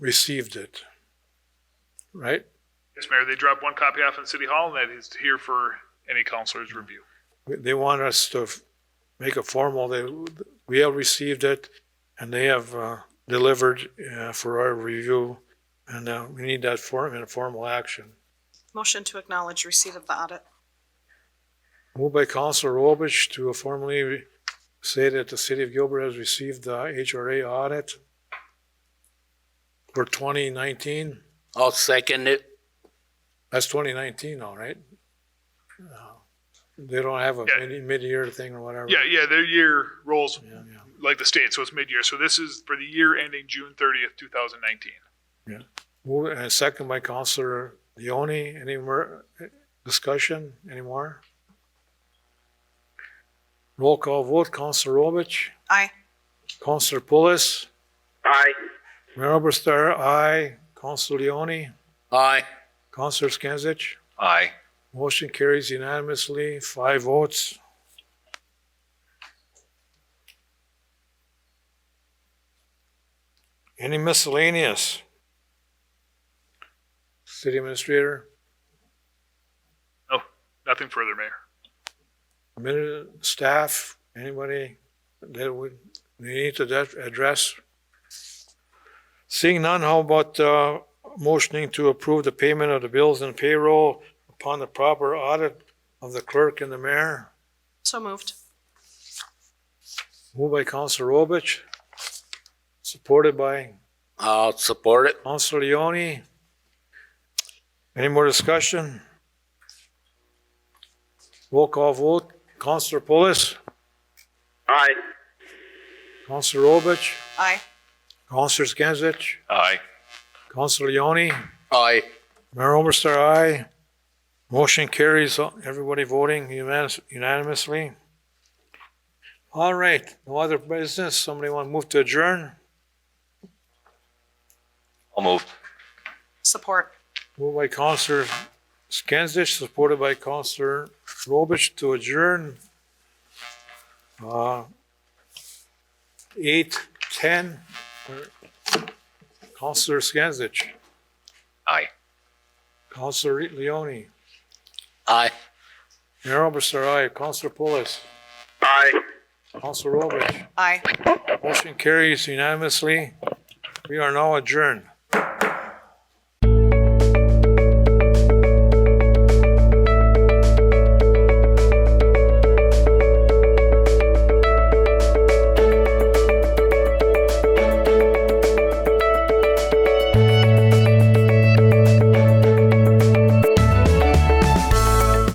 received it, right? Yes, Mayor, they dropped one copy off in City Hall, and that is here for any counselor's review. They want us to f- make a formal, they, we have received it and they have uh, delivered uh, for our review. And uh, we need that form in a formal action. Motion to acknowledge receipt of the audit. Moved by Councilor Robich to formally re- say that the city of Gilbert has received the HRA audit for 2019. I'll second it. That's 2019, all right? Uh, They don't have a Yeah. mid- mid-year thing or whatever. Yeah, yeah, their year rolls Yeah, yeah. like the state, so it's mid-year. So this is for the year ending June thirtieth, two thousand nineteen. Move, and second by Counselor Leoni, any more eh, discussion anymore? Roll call vote, Counselor Robich, Aye. Counselor Pulis, Aye. Mayor Oberstar, aye, Counselor Leoni, Aye. Counselor Skinsich. Aye. Motion carries unanimously, five votes. Any miscellaneous? City Administrator, No, nothing further, Mayor. admin- staff, anybody that we we need to that- address? Seeing none, how about uh, motioning to approve the payment of the bills and payroll upon the proper audit of the clerk and the mayor? So moved. Moved by Councilor Robich, supported by I'll support it. Councilor Leoni. Any more discussion? Roll call vote. Councilor Pulis, Aye. Councilor Robich, Aye. Councilor Skinsich, Aye. Councilor Leoni, Aye. Mayor Omerstar, aye. Motion carries, everybody voting unanimous- unanimously. All right, no other business. Somebody want to move to adjourn? I'll move. Support. Moved by Counselor Skinsich, supported by Counselor Robich to adjourn. Uh, Eight, ten, Counselor Skinsich, Aye. Counselor Leoni, Aye. Mayor Oberstar, aye, Counselor Pulis, Aye. Counselor Robich. Aye. Motion carries unanimously. We are now adjourned.